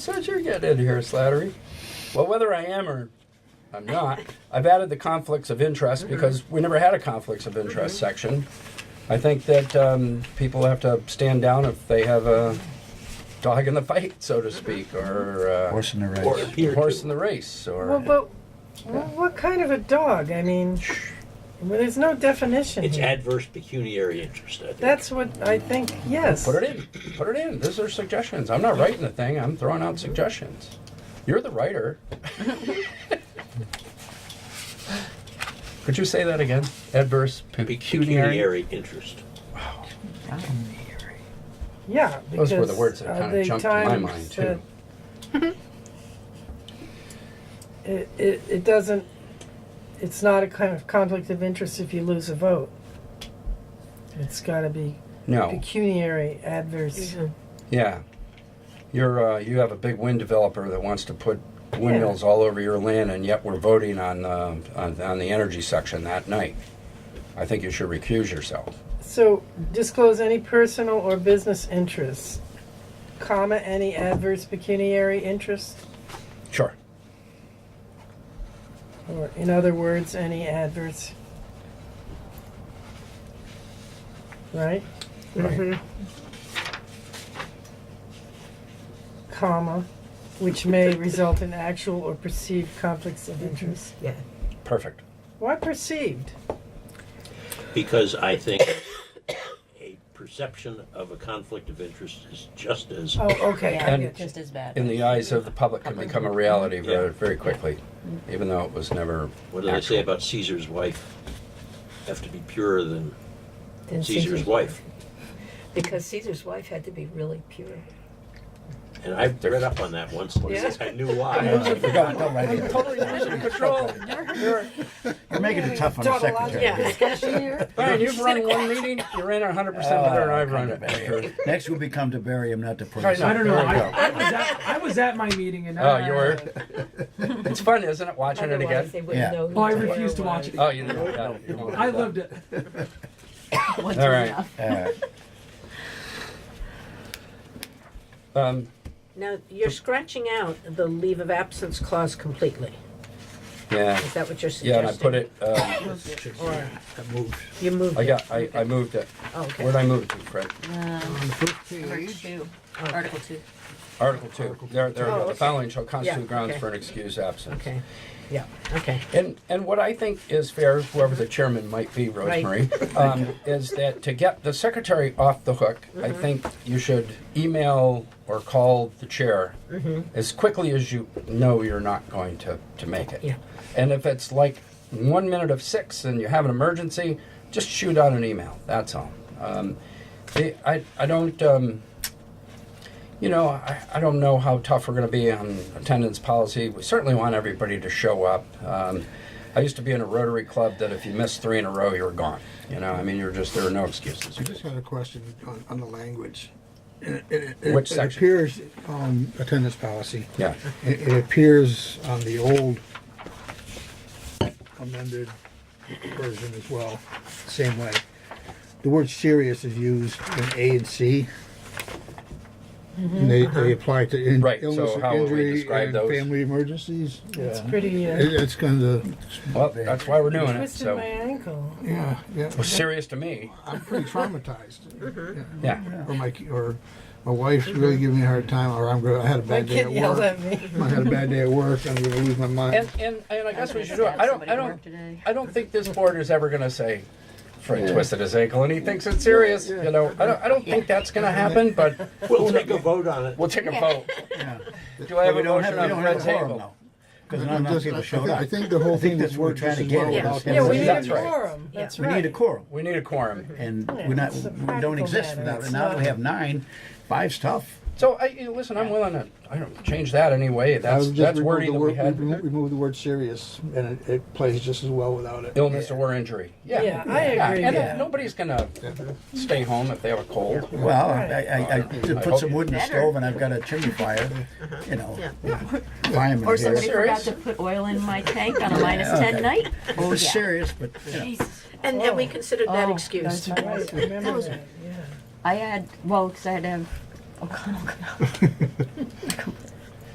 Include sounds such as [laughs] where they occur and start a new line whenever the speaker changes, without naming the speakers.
So as you're getting into here, Slattery. Well, whether I am or I'm not, I've added the conflicts of interest
Mm-hmm.
because we never had a conflicts of interest section. I think that um, people have to stand down if they have a dog in the fight, so
Mm-hmm.
to speak, or uh,
Horse in the race.
Or appear
horse in
to.
the race, or
Well, but wh- what kind of a dog? I mean, well, there's no definition.
It's
here.
adverse pecuniary interest. I think.
That's what I think. Yes.
put it in. Put it in. These are suggestions. I'm not writing the thing. I'm throwing out suggestions. You're the
[laughs]
writer. Could you say that again? Adverse pecuniary.
pecuniary interest.
Yeah.
Those were the
because
words that
are
kinda
they
jumped to my
times
mind,
that-
too.
It, it, it doesn't, it's not a kind of conflict of interest if you lose a vote. It's gotta be
No.
pecuniary adverse.
Yeah. You're, uh, you have a big wind developer that wants to put windmills all over your land, and yet we're voting on, uh, on, on the energy section that night. I think you should recuse yourself.
So disclose any personal or business interests, comma, any adverse pecuniary interest,
Sure.
or in other words, any adverse. Right,
Right.
comma, which may result in actual or perceived conflicts of interest.
Mm-hmm.
Yeah.
Perfect.
Why perceived?
Because I think a perception of a conflict of interest is just as
Oh, okay. I
And-
get you.
just as bad.
In the eyes of the public, can become a reality very,
Yeah.
very quickly, even though it was never.
what do they say
actual.
about Caesar's wife? Have to be purer than
Then
Caesar's wife.
Because Caesar's wife had to be really pure.
And I read up on that once. and
Yeah.
[laughs] I knew why.
God, Uh, don't write it.
Totally [laughs] losing control. You're,
You're making it tough on the secretary.
Discussion here?
Brian, you've run one meeting, you ran it 100% better than I've run it.
Next will become to bury him, not to praise
Right,
him.
I don't know.
There
I,
you go.
I was at, I was at my meeting and
Oh,
I,
you
[laughs]
were? It's fun, isn't it, watching it
Otherwise,
again?
they wouldn't
Yeah.
know who
Oh, I
the
refuse to
whale
watch
was.
it.
Oh, you know, yeah, you won't.
I loved it.
Once
All
is
right.
enough.
Uh,
Um,
Now, you're scratching out the leave of absence clause completely.
yeah.
Is that what you're
Yeah,
suggesting?
and I put it, um,
Or
I moved.
you moved
I
it?
got, I, I moved it.
Oh, okay.
Where'd I move it to, Fred?
Number two, Article two.
Article two. There, there we
Oh,
go. The
okay.
following shall constitute
Yeah,
grounds
okay.
for an excused absence.
Okay, yeah, okay.
And, and what I think is fair, whoever the chairman might be,
Right.
Rosemary,
[laughs]
um, is that to get the secretary off the hook, I
Mm-hmm.
think you should email or call the chair
Mm-hmm.
as quickly as you know you're not going to, to make it.
Yeah.
And if it's like one minute of six and you have an emergency, just shoot out an email. That's all. Um, the, I, I don't. Um, you know, I, I don't know how tough we're going to be on attendance policy. We certainly want everybody to show up. Um, I used to be in a Rotary club that if you missed three in a row, you were gone. You know, I mean, you're just there are no excuses.
I just had a question on, on the language. And it- and it- and it-
Which section?
It appears on attendance policy.
Yeah,
It, it appears on the old amended version as well, same way. The word serious is used in A and C. And they, they apply to in-
Mm-hmm. Right, so
illness and
how would we
injury
describe
and
those?
family emergencies.
It's
Yeah.
pretty,
It,
uh,
it's kind of,
well, that's why we're doing it.
twisted my
So,
ankle.
yeah, yeah,
well, serious to me.
I'm
[laughs]
pretty
Mm-hmm.
traumatized. Yeah.
Yeah.
or my or my wife's really giving me a hard time, or I'm gonna, I had a
My
bad day
kid
at
yelled
work.
at me.
I had a bad day at work. I'm gonna lose my mind.
And, and, and I guess we should do it. I don't, I don't, I don't think this board is ever going to say Fred twisted his ankle and he thinks it's serious. You know, I don't, I don't think that's going to happen, but
We'll take a vote on it.
we'll take a vote.
yeah.
Do I have a
We don't
motion
have,
on
we don't have
Fred's
a quorum,
ankle?
though. Because
I'm
not enough
just-
people
I
showed
think-
up.
I think the whole
I think
thing
that's
was
what we're
worked
trying
just
to
as
get
well
at
without
is-
Yeah, we need a
That's right.
quorum. That's
We
right.
need a quorum.
We need a quorum.
And we're not,
it's a
we don't
practical
exist
matter.
without,
It's
now
not-
we have nine. Five's tough.
So I, you know, listen, I'm willing to, I don't change that anyway. That's, that's wording that we had.
We moved the word serious, and it, it plays just as well without it.
Illness or injury. Yeah.
Yeah, I agree,
And
yeah.
nobody's gonna stay home if they have a cold.
Well, I, I, I to
I
put
hope
some wood in the
better.
stove and I've got a chimney fire,
Uh-huh.
you know.
Or
Fireman
somebody
here.
forgot
Serious?
to put oil in my tank on a minus ten night.
Oh, it's
Yeah.
serious, but, you know.
Jesus.
And, and we considered that
Oh,
excused.
that's right.
Right, remember that.
I had, well, because I had to have O'Connell come out.